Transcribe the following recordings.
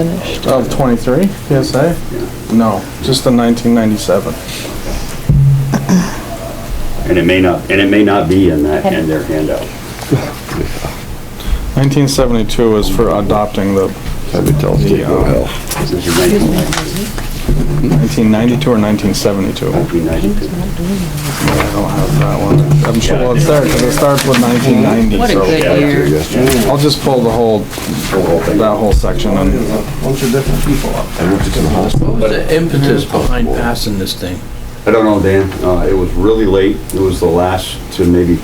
finished. Of 23 PSA? No, just the 1997. And it may not, and it may not be in that, in their handout. 1972 was for adopting the I would tell them to go to hell. This is your 1992. 1992 or 1972. I 1992. don't have that one. I'm sure, well, it's there, 'cause it starts with 1990, What a so- good Here, year. yesterday. I'll just pull the whole, that whole section and Bunch of different people up there. I worked at the hospital. What was the impetus behind passing this thing? I don't know, Dan, uh, it was really late, it was the last to maybe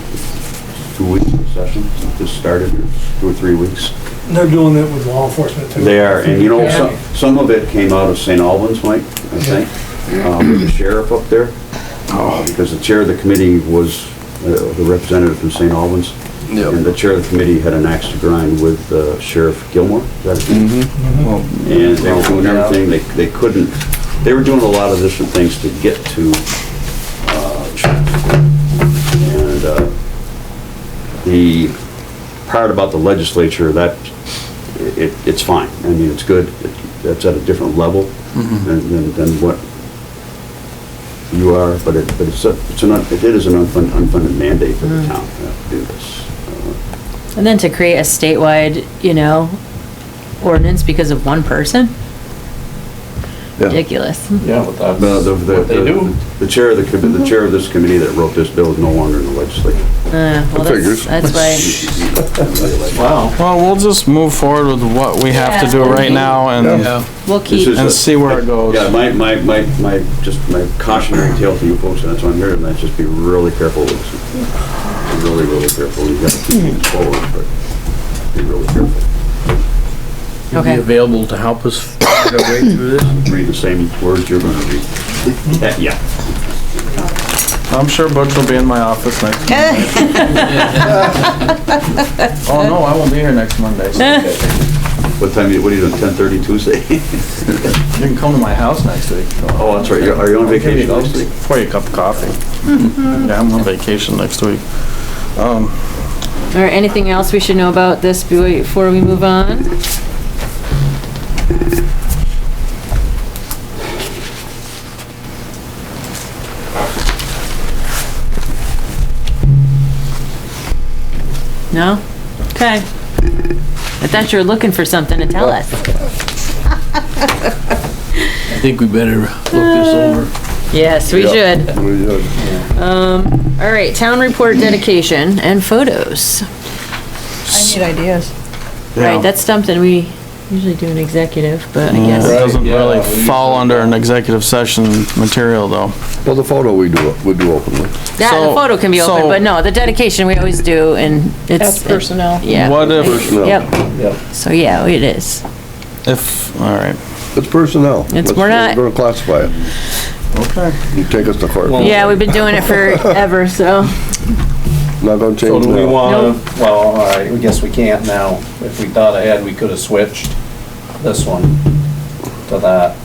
two weeks of session, this started, or two or three weeks. They're doing it with law enforcement too. They are, and you know, some, some of it came out of St. Albans, Mike, I think, uh, with the sheriff up there. Uh, Because the chair of the committee was uh, the representative from St. Albans. And the chair of the committee had an axe to grind with uh, Sheriff Gilmore, is that his name? Mm-hmm. well, And they were doing everything, they, they couldn't, they were doing a lot of different things to get to, uh, Chatsworth. And, uh, the part about the legislature, that, it, it's fine. I mean, it's good, It- that's at a different level than, than- than what you are, but it, but it's, a- it's an, un- it is an unfunded, unfunded mandate for the town uh, to do this. And then to create a statewide, you know, ordinance because of one person? Ridiculous. Yeah, The, the, the, the chair of the, commi- the chair of this committee that wrote this bill is no longer in the legislature. Uh, well, Figures. that's, that's why, Wow. well, we'll just move forward with what we have to do right now and, we'll This is keep, and a- see where it goes. Yeah, my, my, my, my, just my cautionary tale to you folks, and that's why I'm here tonight, just be really careful with this. Be Really, really careful. You gotta keep things forward, but be really careful. You'll be Okay. available to help us find our way through this? Read the same words you're gonna read. Eh, Yeah, I'm sure Butch will be in my office next. Oh, no, I won't be here next Monday. so what time, you- what are you doing, ten thirty Tuesday? You can come to my house next week. if you want. Oh, that's right, you're- are you on vacation next week? Pour you a cup of coffee. Yeah, I'm on vacation next week. Um, or anything else we should know about this before we move on? No? Okay. I thought you were looking for something to tell us. I think we better look this Uh, over. Yes, we should. We did. Um, all right, town report dedication and photos. I need ideas. Yeah. Right, that's something we usually do an executive, but I yeah, It guess, doesn't really fall under an executive session material, though. Well, the photo we do, we do openly. that, the So- photo can be so- open, but no, the dedication we always do and That's it's. personnel. Yeah. What if, Personnel. Yep. So, yeah, it is. if, all right. It's personnel. It's- That's- we're not- We're gonna classify it. Okay. You take us to court. Not Yeah, we've been doing it forever, so. gonna So change do we now. wanna, well, all right, we guess we can't now. If we thought ahead, we could've switched this one to that,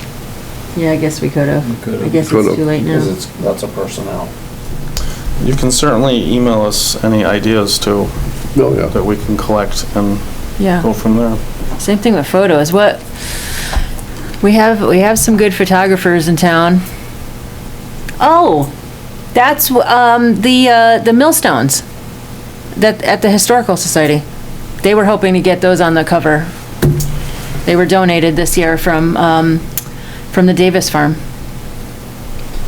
Yeah, I guess we could have. I guess it's Could've. too late because now. it's, that's a personnel. You can certainly email us any ideas too, Oh, yeah. that we can collect and go Yeah, from there. same thing with photos. What, we have, we have some good photographers in town. Oh, that's, wh- um, the, uh, the millstones that, at the Historical Society. They were hoping to get those on the cover. They were donated this year from, um, from the Davis Farm.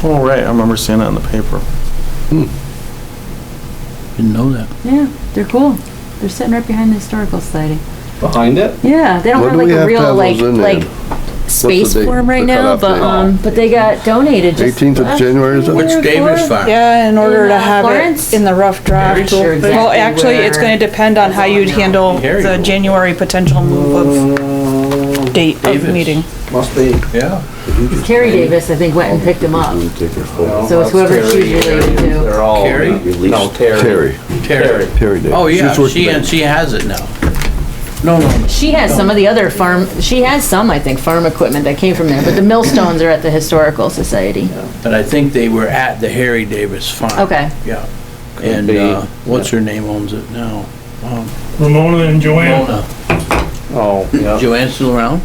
Oh, right, I remember seeing it in the paper. Didn't know that. Yeah, they're cool. They're sitting right behind the historical society. Behind it? Yeah, they don't When have do like we a have to real have like those in there? like space date? for 'em right The now, cutoff but date? um, but they got donated. just 18th of last January, is year it? Which or Davis before. Farm? Yeah, in order to In, uh, have Florence? it in the rough draft. sure Well, well, exactly actually, it's where- gonna depend on how you'd handle Harry the will. January potential move of date of Davis. meeting. Must be. Yeah. Terry Davis, I think, went and picked them up. I'm gonna take your photo. So it's whoever That's Terry. she's related to. They're all. Carrie? No, Terry. Terry, Terry. Terry did. Oh, yeah, She's working she, there. and she has it now. No, no, She has some of the other farm. She has some, I think, farm equipment that came from there. But the millstones are at the historical society. but I think they were at the Harry Davis Farm. Okay. Yeah. And, be. uh, what's her name owns it now? Um, Ramona and Joanne. Mona. Oh, yeah. Joanne's still around?